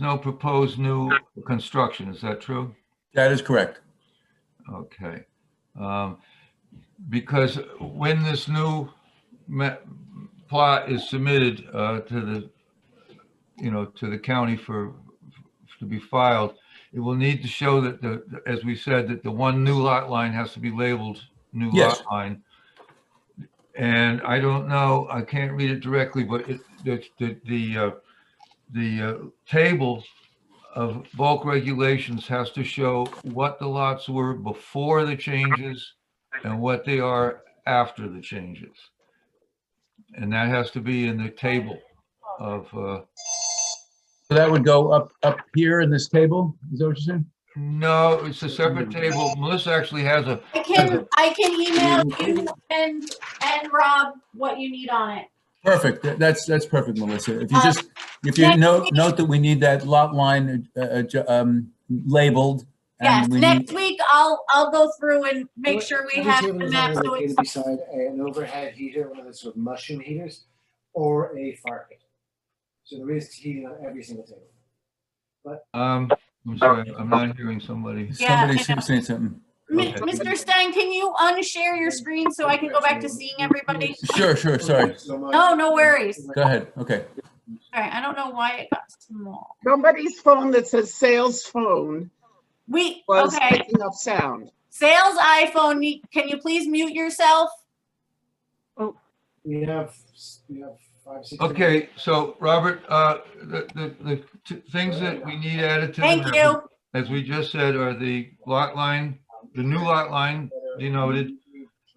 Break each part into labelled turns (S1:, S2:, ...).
S1: no proposed new construction, is that true?
S2: That is correct.
S1: Okay. Um, Because when this new ma- plot is submitted uh, to the, you know, to the county for, to be filed, it will need to show that the, as we said, that the one new lot line has to be labeled new lot
S2: Yes.
S1: line. And I don't know, I can't read it directly, but it, the, the, the, uh, the uh, table of bulk regulations has to show what the lots were before the changes and what they are after the changes. And that has to be in the table of, uh,
S2: So that would go up, up here in this table? Is that what you're saying?
S1: no, it's a separate table. Melissa actually has a,
S3: I can, I can email you and, and Rob what you need on it.
S2: Perfect. That- That's, that's perfect, Melissa. If you
S3: Uh,
S2: just, if you
S3: next
S2: note,
S3: week-
S2: note that we need that lot line uh, adju- um, labeled.
S3: Yes,
S2: and we need-
S3: next week I'll, I'll go through and make
S4: What-
S3: sure we
S4: what
S3: have the
S4: table is
S3: map.
S4: that
S3: so
S4: located
S3: it's-
S4: Beside an overhead heater, one of those sort of mushroom heaters, or a fire pit. So there is heating on every single table.
S1: um, I'm sorry, I'm not hearing somebody.
S3: Yeah,
S2: Somebody
S3: I
S2: seems to say something.
S3: Mi-
S1: Okay.
S3: Mr. Stein, can you unshare your screen so I can go back to seeing everybody?
S2: Sure, sure, sorry.
S4: So much-
S3: No, no worries.
S2: Go ahead. Okay.
S3: All right, I don't know why it got small.
S5: Somebody's phone that says sales phone
S3: We,
S5: was
S3: okay,
S5: picking up sound.
S3: sales iPhone, you- can you please mute yourself?
S4: We have, we have five, six.
S1: Okay, so Robert, uh, the, the, the t- things that we need added to the
S3: Thank
S1: map,
S3: you.
S1: As we just said, are the lot line,
S4: um,
S1: the new lot line denoted,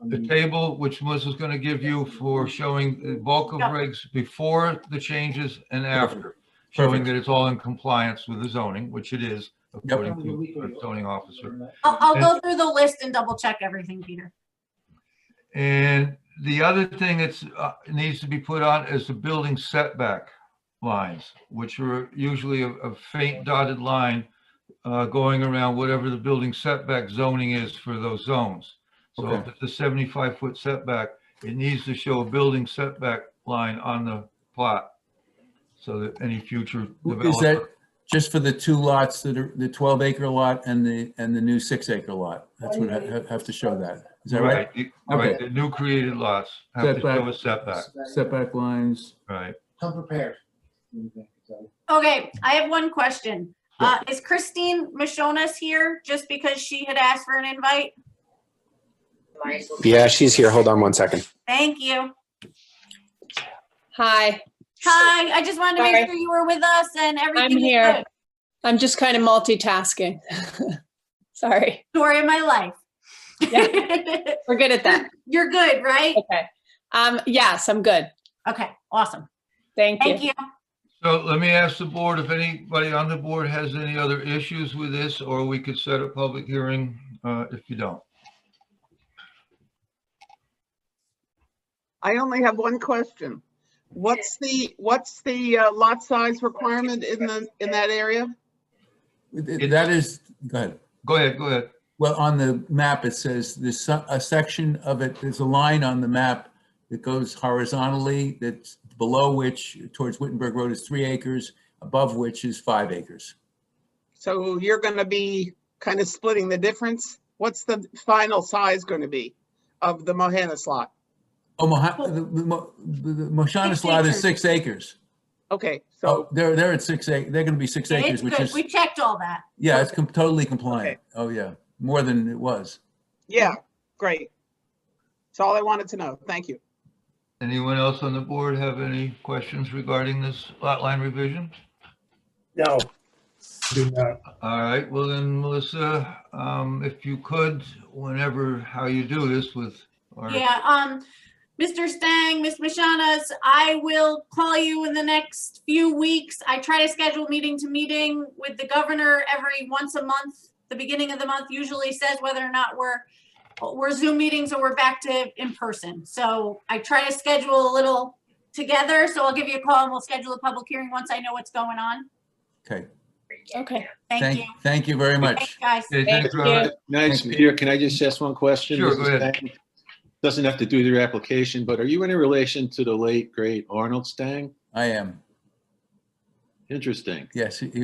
S1: the table which Melissa's gonna give you for showing the bulk of
S3: Yeah.
S1: regs before the changes and after, showing
S2: Perfect.
S1: that it's all in compliance with the zoning, which it is, according to the zoning officer.
S3: I'll, I'll go through the list and double check everything, Peter.
S1: And the other thing that's, uh, needs to be put on is the building setback lines, which are usually a- a faint dotted line uh, going around whatever the building setback zoning is for those zones. So if
S2: Okay.
S1: it's a seventy-five foot setback, it needs to show a building setback line on the plot. So that any future
S2: Is that
S1: developer,
S2: just for the two lots that are, the 12 acre lot and the, and the new six acre lot? That's what I have- have to show that. Is that right?
S1: right, the- right, the new created lots have to show a setback,
S2: Setback lines.
S1: right?
S4: Come prepared.
S3: Okay, I have one question. Uh, is Christine Mishonas here just because she had asked for an invite?
S6: Yeah, she's here. Hold on one second.
S3: Thank you.
S7: Hi,
S3: Hi, I just wanted to
S7: Sorry.
S3: make sure you were with us and everything. is
S7: here.
S3: good.
S7: I'm just kind of multitasking. Sorry,
S3: Story of my life.
S7: we're good at that.
S3: You're good, right?
S7: Okay. Um, yes, I'm good.
S3: Okay, awesome.
S7: Thank you.
S3: Thank you.
S1: So let me ask the board if anybody on the board has any other issues with this, or we could set a public hearing uh, if you don't.
S5: I only have one question. What's the, what's the uh, lot size requirement in the, in that area?
S2: That is, go ahead.
S1: Go ahead, go ahead.
S2: Well, on the map, it says there's so- a section of it, there's a line on the map that goes horizontally, that's below which, towards Wittenberg Road is three acres, above which is five acres.
S5: So you're going to be kind of splitting the difference? What's the final size going to be of the Mohannis lot?
S2: Oh, Moha- the- the Mo- the- the Moshanis
S3: Six
S2: lot is
S3: acres.
S2: six acres.
S5: Okay,
S2: Oh,
S5: so,
S2: they're, they're at six, ac- they're going to be six
S3: It's
S2: acres, which
S3: good.
S2: is,
S3: We checked all that.
S2: yeah, it's com- totally compliant. Oh, yeah, more than it was.
S5: yeah, great. That's all I wanted to know. Thank you.
S1: Anyone else on the board have any questions regarding this lot line revision?
S8: No. Do not.
S1: All right, well then, Melissa, um, if you could, whenever, how you do this with, or,
S3: Yeah, um, Mr. Stang, Ms. Mashanas, I will call you in the next few weeks. I try to schedule meeting to meeting with the governor every once a month. The beginning of the month usually says whether or not we're, we're Zoom meetings or we're back to in person. So I try to schedule a little together, so I'll give you a call and we'll schedule a public hearing once I know what's going on.
S2: Okay,
S7: Okay.
S3: Thank you.
S2: thank, thank you very
S3: Thanks,
S2: much.
S3: guys.
S1: Okay, thanks,
S7: you.
S1: Robert.
S9: Nice,
S2: Thank you.
S9: Peter, can I just ask one question?
S1: Sure,
S9: This
S1: go
S9: is
S1: ahead.
S9: Stang. Doesn't have to do with your application, but are you in a relation to the late, great Arnold Stang?
S2: I am,
S9: Interesting.
S2: yes, he-